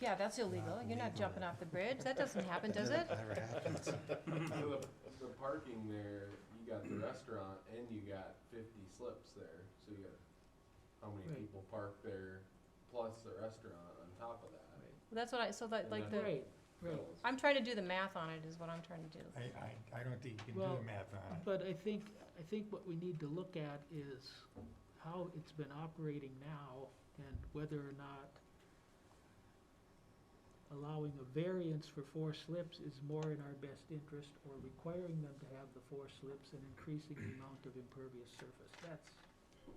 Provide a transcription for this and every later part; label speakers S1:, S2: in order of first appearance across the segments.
S1: Yeah, that's illegal. You're not
S2: Unbelievable.
S1: jumping off the bridge. That doesn't happen, does it?
S2: Never happens.
S3: So the, the parking there, you got the restaurant and you got fifty slips there, so you got how many
S4: Right.
S3: people park there, plus the restaurant on top of that.
S1: That's what I, so that, like
S3: Yeah.
S1: the,
S4: Right, right.
S3: Bills.
S1: I'm trying to do the math on it is what I'm trying to do.
S2: I, I, I don't think you can do
S4: Well,
S2: the math on it.
S4: But I think, I think what we need to look at is how it's been operating now and whether or not allowing a variance for four slips is more in our best interest or requiring them to have the four slips and increasing the amount of impervious surface. That's,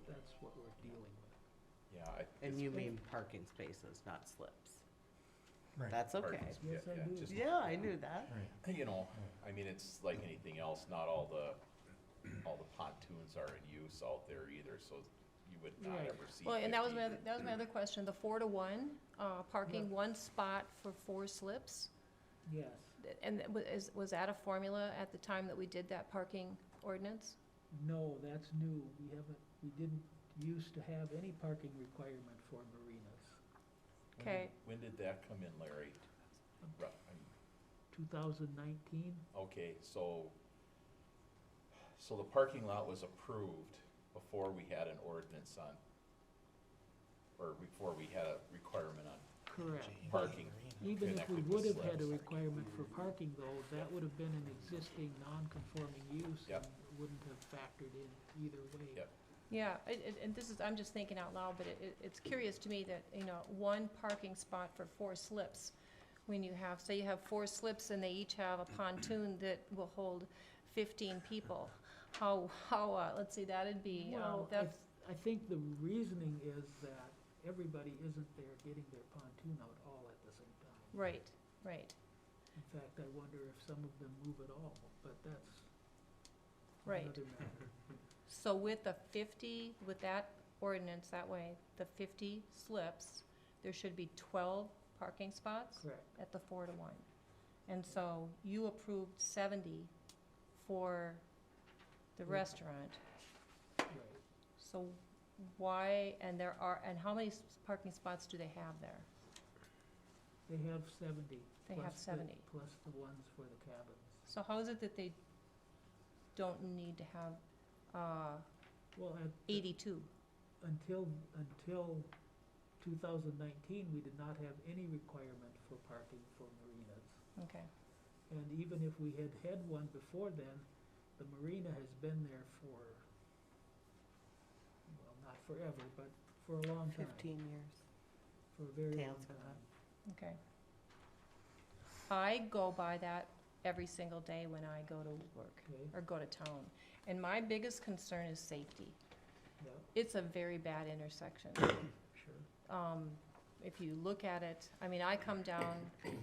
S4: that's what we're dealing with.
S5: Yeah, I.
S6: And you mean parking spaces, not slips.
S2: Right.
S6: That's okay.
S5: parking sp- yeah,
S4: Yes, I
S5: yeah,
S4: do.
S5: just-
S6: Yeah, I knew that.
S2: Right.
S5: You know, I mean, it's like anything else, not all the, all the pontoons are in use out there either, so you would not
S4: Right.
S5: ever see
S1: Well, and that was my,
S5: fifty.
S1: other- that was my other question, the four to one, uh, parking one spot for four slips.
S4: Yes,
S1: Th- And that wa- is, was that a formula at the time that we did that parking ordinance?
S4: no, that's new. We haven't, we didn't used to have any parking requirement for marinas.
S5: When did-
S1: okay.
S5: When did that come in, Larry? Ru- I'm-
S4: Two thousand nineteen?
S5: Okay, so, so the parking lot was approved before we had an ordinance on, or before we had a requirement on
S4: Correct.
S5: parking.
S4: Even if we
S5: connected
S4: would
S5: with
S4: have had a
S5: slabs.
S4: requirement for parking though, that would have been an existing non-conforming use.
S5: Yep.
S4: and it Wouldn't have factored in either way.
S5: Yep.
S1: Yeah, it, it, and this is, I'm just thinking out loud, but it, it, it's curious to me that, you know, one parking spot for four slips. When you have, say you have four slips and they each have a pontoon that will hold fifteen people. How, how, uh, let's see, that'd be, um,
S4: Well, I,
S1: that's,
S4: I think the reasoning is that everybody isn't there getting their pontoon out all at the same time.
S1: right, right,
S4: In fact, I wonder if some of them move at all, but that's
S1: Right.
S4: another matter.
S1: So with the fifty, with that ordinance that way, the fifty slips, there should be twelve parking spots
S4: Correct.
S1: at the four to one. And so you approved seventy for the
S4: Mm.
S1: restaurant,
S4: Right.
S1: so why, and there are, and how many s- parking spots do they have there?
S4: They have seventy.
S1: They have
S4: plus the-
S1: 70.
S4: Plus the ones for the cabins.
S1: So how is it that they don't need to have, uh,
S4: Well, at. the-
S1: eighty-two?
S4: until, until two thousand nineteen, we did not have any requirement for parking for marinas.
S1: Okay,
S4: And even if we had had one before then, the marina has been there for, well, not forever, but for a long time,
S6: Fifteen years.
S4: for a very long
S6: Tails
S4: time.
S1: okay. I go by that every single day when I go to work.
S4: Okay,
S1: or go to town. And my biggest concern is safety.
S4: yeah,
S1: It's a very bad intersection.
S4: sure.
S1: Um, if you look at it, I mean, I come down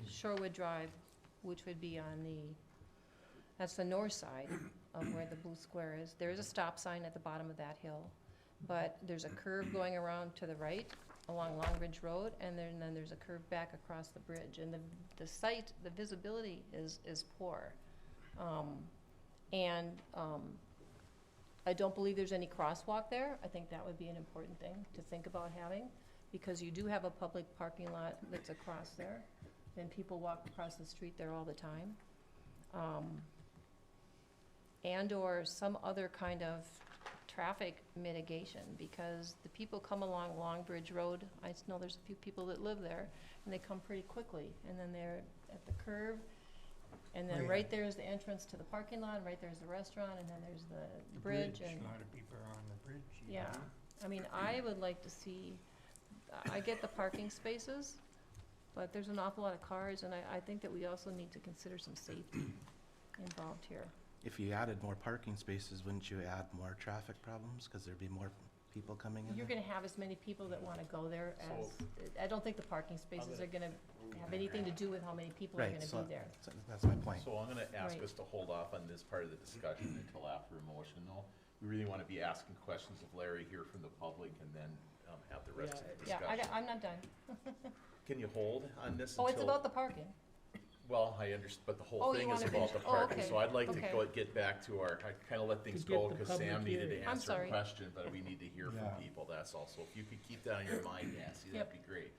S1: Shorewood Drive, which would be on the, that's the north side of where the blue square is. There is a stop sign at the bottom of that hill, but there's a curve going around to the right along Long Ridge Road, and then, then there's a curve back across the bridge. And the, the site, the visibility is, is poor. Um, and, um, I don't believe there's any crosswalk there. I think that would be an important thing to think about having, because you do have a public parking lot that's across there, and people walk across the street there all the time. Um, and/or some other kind of traffic mitigation, because the people come along Long Bridge Road, I s- know there's a few people that live there, and they come pretty quickly, and then they're at the curve, and then
S2: Right.
S1: right there is the entrance to the parking lot, and right there's the restaurant, and then there's the
S2: The
S1: bridge, and,
S2: A lot of people are on the bridge. you
S1: yeah.
S2: know.
S1: I mean, I would like to see, I get the parking spaces, but there's an awful lot of cars, and I, I think that we also need to consider some safety involved here.
S7: If you added more parking spaces, wouldn't you add more traffic problems? Because there'd be more people coming in?
S1: You're gonna have as many people that wanna go there as, I don't think the parking spaces are gonna have anything to do with how many people are
S7: Right,
S1: gonna
S7: so-
S1: be there.
S7: So That's my point.
S5: So I'm gonna ask
S1: Right.
S5: us to hold off on this part of the discussion until after a motion, though. We really wanna be asking questions of Larry here from the public and then, um, have the rest of the
S1: Yeah, I,
S5: discussion.
S1: I'm not done.
S5: Can you hold on this until?
S1: Oh, it's about the parking.
S5: Well, I understand, but the
S1: Oh,
S5: whole
S1: you
S5: thing is
S1: wanna
S5: about
S1: finish-
S5: the
S1: oh,
S5: parking,
S1: okay,
S5: so I'd like to
S1: okay.
S5: go, get back to our, I kinda let things
S4: To get
S5: go,
S4: the
S5: cause
S4: public
S5: Sam needed to
S4: hearing.
S1: I'm
S5: answer a
S1: sorry.
S5: question, but we need to hear
S2: Yeah.
S5: from people, that's all. So if you could keep that on your mind, Nancy,
S1: Yep.
S5: that'd be great.